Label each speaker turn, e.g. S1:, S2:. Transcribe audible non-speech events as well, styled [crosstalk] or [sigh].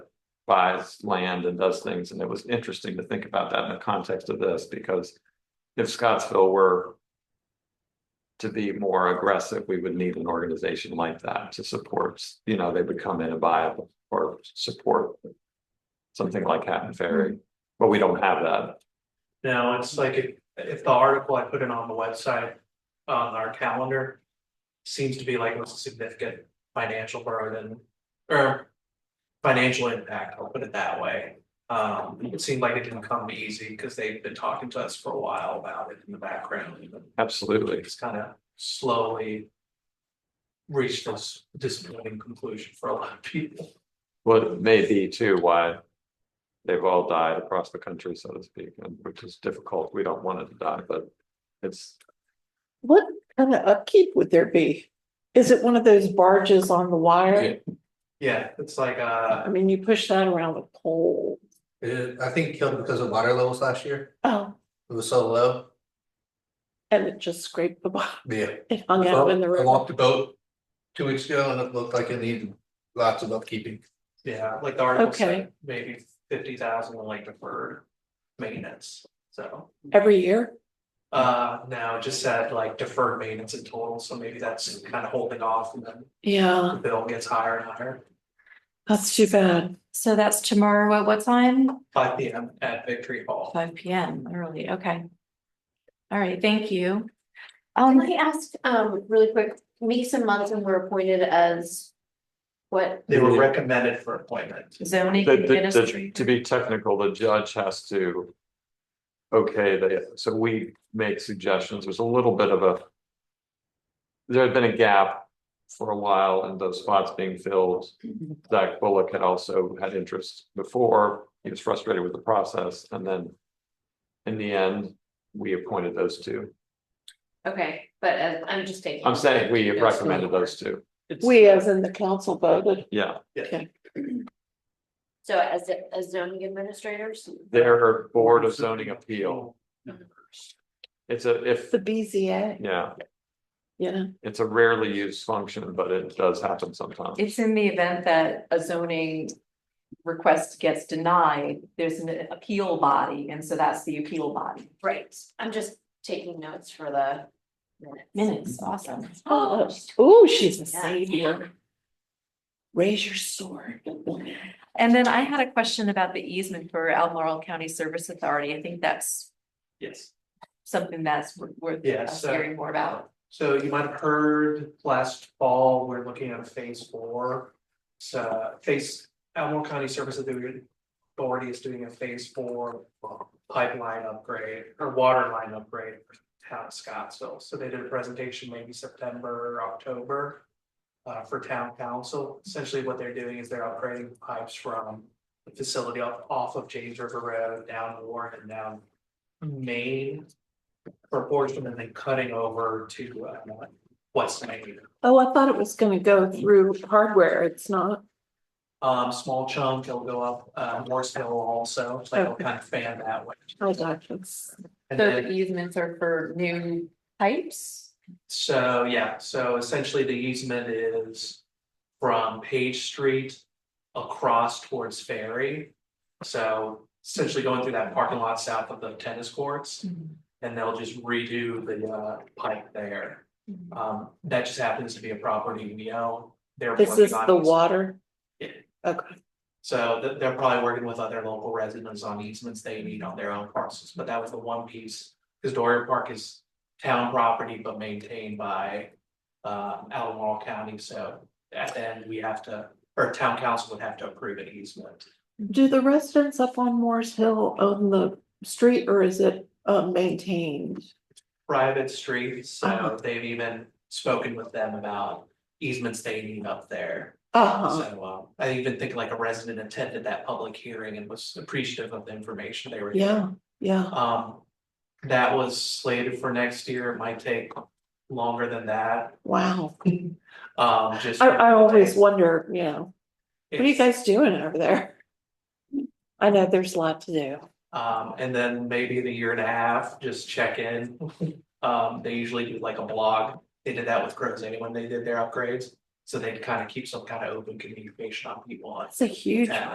S1: buys land and does things, and it was interesting to think about that in the context of this, because if Scottsville were to be more aggressive, we would need an organization like that to support, you know, they would come in and buy or support something like Hatton Ferry, but we don't have that.
S2: No, it's like if, if the article I put in on the website, on our calendar. Seems to be like a significant financial burden or. Financial impact, I'll put it that way. Um, it seemed like it didn't come easy because they've been talking to us for a while about it in the background. and
S1: Absolutely.
S2: It's kind of slowly. Reached this disappointing conclusion for a lot of people.
S1: Well, it may be too why they've all died across the country, so to speak, and which is difficult. We don't want it to die, but it's,
S3: What kind of upkeep would there be? Is it one of those barges on the wire?
S2: Yeah, it's like, uh,
S3: I mean, you push that around with pole.
S4: It, I think killed because of water levels last year.
S3: Oh,
S4: It was so low.
S3: and it just scraped the bottom. [laughs]
S4: Yeah.
S3: It hung out in Oh, the
S4: I
S3: river.
S4: walked the boat two weeks ago and it looked like it needed lots of upkeeping.
S2: yeah, like the article
S3: Okay.
S2: said, maybe fifty thousand like deferred maintenance, so.
S3: Every year,
S2: Uh, now it just said like deferred maintenance in total, so maybe that's kind of holding off and then the
S3: yeah,
S2: bill gets higher and higher.
S3: that's too bad.
S5: So that's tomorrow at what time?
S2: Five P M at Victory Hall.
S5: Five P M, early, okay. All right, thank you.
S6: Can
S5: Um,
S6: I ask, um, really quick, Meeks and Munson were appointed as what?
S2: They were recommended for appointment.
S5: zoning.
S1: the- the- the-
S5: administrator.
S1: to be technical, the judge has to okay, the, so we make suggestions. There's a little bit of a there had been a gap for a while and those spots being filled. Zach Bullock had also had interest before. He was frustrated with the process and then in the end, we appointed those two.
S6: Okay, but as, I'm just taking.
S1: I'm saying we recommended those two,
S2: It's-
S3: We, as in the council voted,
S1: yeah,
S6: So as, as zoning administrators?
S1: their Board of Zoning Appeal, it's a, if,
S3: the BZA,
S1: yeah,
S3: you know,
S1: it's a rarely used function, but it does happen sometimes.
S7: It's in the event that a zoning request gets denied, there's an appeal body, and so that's the appeal body.
S6: Right, I'm just taking notes for the.
S7: Minutes, awesome.
S3: oh, oh, she's a
S6: Yeah.
S3: savior. Raise your sword.
S7: And then I had a question about the easement for Almoral County Service Authority. I think that's
S2: Yes,
S7: something that's wor- worth
S2: Yeah,
S7: us
S2: so-
S7: hearing more about.
S2: so you might have heard last fall, we're looking at a phase four. So phase, Elmore County Service Authority is doing a phase four pipeline upgrade or water line upgrade for town of Scottsville. So they did a presentation maybe September, October. uh, for town council. Essentially what they're doing is they're upgrading the pipes from the facility off, off of James River Road down Warren and down Main. For a portion and then cutting over to, uh, West Main.
S3: Oh, I thought it was gonna go through hardware. It's not.
S2: Um, small chunk, it'll go up, uh, Morse Hill also, so it'll
S3: Okay. e-,
S2: kind of fan that way.
S3: I got you.
S2: And
S7: So
S2: then-
S7: the easements are for new pipes?
S2: So, yeah, so essentially the easement is from Page Street across towards Ferry. So essentially going through that parking lot south of the tennis courts.
S7: Mm-hmm.
S2: And they'll just redo the uh pipe there.
S7: Mhm.
S2: Um, that just happens to be a property we own. They're
S3: This
S2: working
S3: is
S2: on
S3: the
S2: eas-
S3: water.
S2: Yeah.
S3: Okay,
S2: So they're they're probably working with other local residents on easements they need on their own parcels, but that was the one piece. Cause Dorian Park is town property but maintained by um Alamo County, so at the end, we have to, or town council would have to approve an easement.
S3: do the residents up on Morris Hill own the street or is it uh maintained?
S2: Private streets, so
S3: Uh-huh.
S2: they've even spoken with them about easements they need up there.
S3: Uh-huh,
S2: So um I even think like a resident attended that public hearing and was appreciative of the information they were. given.
S3: yeah, yeah,
S2: Um, that was slated for next year, it might take longer than that,
S3: wow.
S2: um, just.
S3: I I always wonder, you know, what are you
S2: It's-
S3: guys doing over there? I know there's a lot to do.
S2: Um, and then maybe in a year and a half, just check
S3: [laughs]
S2: in. Um, they usually do like a blog, they did that with Crozane when they did their upgrades, so they'd kind of keep some kind of open communication on people.
S3: It's a huge
S2: Yeah.